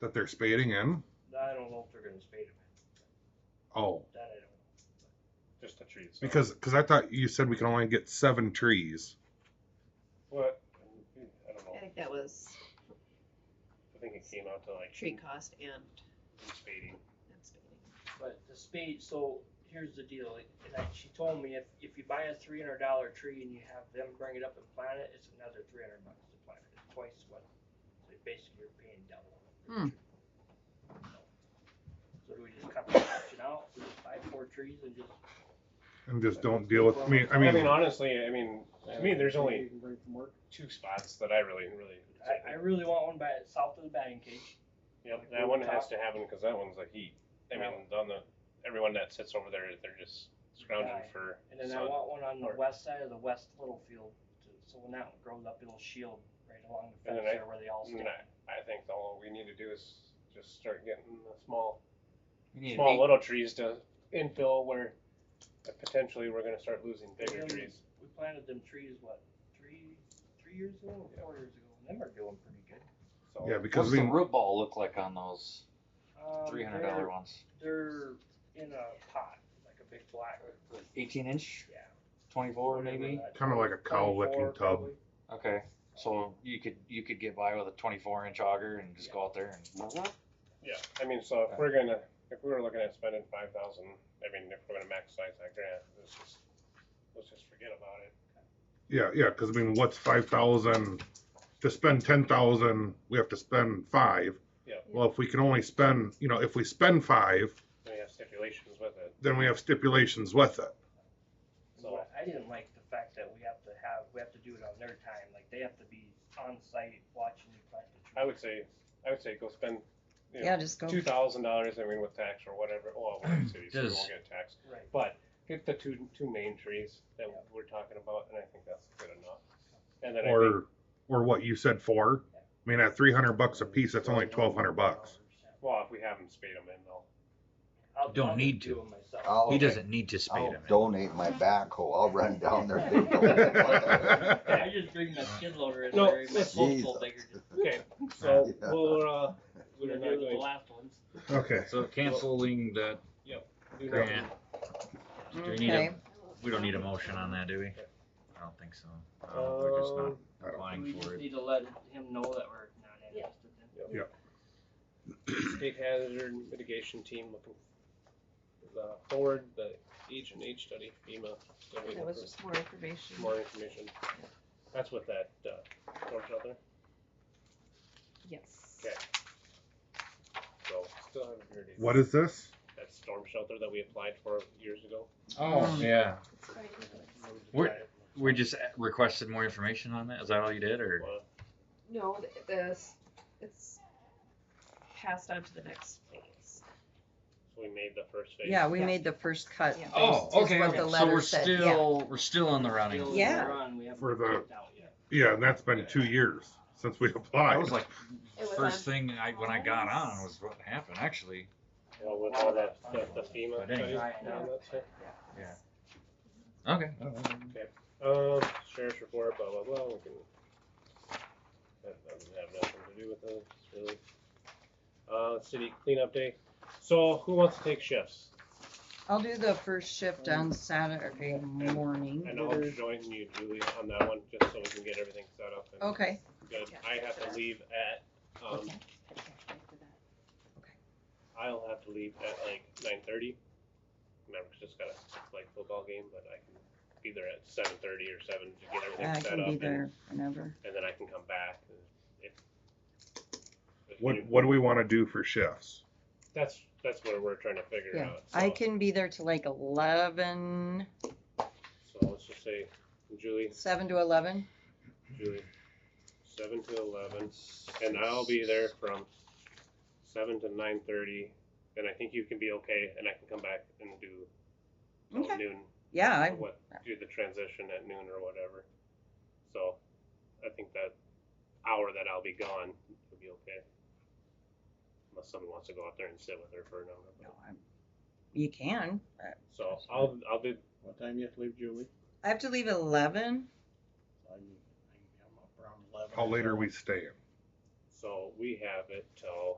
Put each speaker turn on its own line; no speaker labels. that they're spading in?
I don't know if they're gonna spade them.
Oh,
That I don't know.
Just the trees.
because because I thought you said we can only get seven trees.
What? I don't know.
I think that was
I think it came out to like
tree cost and,
spading.
and spading.
But the spade, so here's the deal, and I, she told me if, if you buy a three hundred dollar tree and you have them bring it up and plant it, it's another three hundred bucks to plant it, it's twice what, so basically you're paying double.
Hmm.
So do we just cut the option out, we just buy four trees and just,
And just don't deal with. I mean, I mean,
honestly, I mean, to me, there's only
You can bring from work.
two spots that I really, really.
I, I really want one by, south of the batting cage.
Yep, that one has to happen because that one's like heat. I mean, on the everyone that sits over there, they're just scrounging
Right.
for
And then I
sun.
want one on the
Or-
west side of the west little field, to- so when that grows up, it'll shield right along the
And
fence
then I-
there where they all
And
stand.
then I, I think all we need to do is just start getting the small,
You need
small
to
little trees to infill where potentially we're going to start losing bigger
Yeah.
trees.
We planted them trees, what, three, three years ago, or four years ago, and them are doing pretty good.
So
yeah,
be, what's
because
the
we
root ball look like on those
Um,
three hundred dollar ones?
They're they're in a pot, like a big black,
Eighteen inch,
yeah.
twenty four maybe.
Kinda like a cow licking
Twenty-four,
tub.
probably.
Okay, so you could you could get by with a twenty four inch auger and just go out there and.
Yeah, I mean, so if we're gonna, if we were looking at spending five thousand, I mean, if we're gonna maximize that grant, let's just, let's just forget about it.
yeah yeah because I mean, what's five thousand to spend ten thousand? We have to spend five.
Yeah.
Well, if we can only spend, you know, if we spend five,
Then we have stipulations with it,
then we have stipulations with it.
so,
What I didn't like the fact that we have to have, we have to do it on their time, like they have to be on site watching you plant the tree.
I would say, I would say go spend, you
Yeah,
know,
just go.
two thousand dollars, I mean, with tax or whatever, well, we're in the city, so we
Does-
won't get taxed.
Right.
But get the two, two main trees that
Yeah.
we're talking about, and I think that's good enough. And then I think,
or or what you said four. I mean, at three hundred bucks a piece, that's only twelve hundred bucks.
well, if we have them spade them in, though,
I'll-
Don't
I'll
need
do
to.
it myself.
He
I'll,
doesn't need to
I'll
spade him.
donate my backhoe. I'll run down there. and dig the
Well,
I just bring my skid loader in
No,
there, my
let's-
postal digger, just
okay, so,
Yeah.
we'll, uh,
do
we're not
the
going,
last ones.
Okay.
So canceling that
do Uh, nothing.
grant. Do we need
Okay.
a, we don't need a motion on that, do we? I don't think so. Uh, We're just
Um,
I
not
don't-
We
applying
just
for it.
need to let him know that we're not interested in.
State hazard mitigation team looking the forward, the H and H study, FEMA. they're waiting
That was
for
just more information.
More information. That's what that, uh, torch out there,
Yes.
Okay. so still haven't heard it.
What is this?
That storm shelter that we applied for years ago.
Oh, yeah.
It's very good.
We're- We just requested more information on that? Is that all you did or?
Uh,
No, th- this, it's passed on to the next phase.
So we made the first phase.
Yeah, we
Yeah.
made the first cut.
Yeah.
based- is what the
Oh, So we're
letter said, yeah.
still, we're still on the running.
Still in the
Yeah.
run, we haven't
For the-
checked out yet.
Yeah, and that's been two years since we applied.
That was like
It was
first
on-
thing I, when I got on was what happened actually.
Well, with all that, the the FEMA
But anyway.
study.
Right now.
Yeah. Okay.
Um, sheriff's report, blah, blah, blah, we can. That doesn't have nothing to do with us, really. Uh, city cleanup day, so who wants to take shifts?
I'll do the first shift on Saturday morning.
And I'll join you, Julie, on that one, just so we can get everything set up and
Okay,
good. I have to leave at, um, I'll have to leave at like nine thirty. Remember, 'cause just got a like football game, but I can be there at seven thirty or seven to get
I
everything set
can
up.
be
and-
there whenever.
And then I can come back if. if you-
What What do we want to do for shifts?
That's, that's what we're trying to figure
Yeah,
out.
I
so-
can be there till like eleven,
So let's just say Julie,
seven to eleven.
Julie, seven to eleven, and I'll be there from seven to nine thirty. And I think you can be okay, and I can come back and do till
Okay.
noon.
Yeah,
or
I,
What, do the transition at noon or whatever. So I think that hour that I'll be gone will be okay. Unless someone wants to go out there and sit with her for an hour. but-
no, I'm- you can. Uh,
So I'll, I'll be,
What time you have to leave, Julie?
I have to leave at eleven.
I'm, I'm up around eleven.
How late are we staying?
so we have it till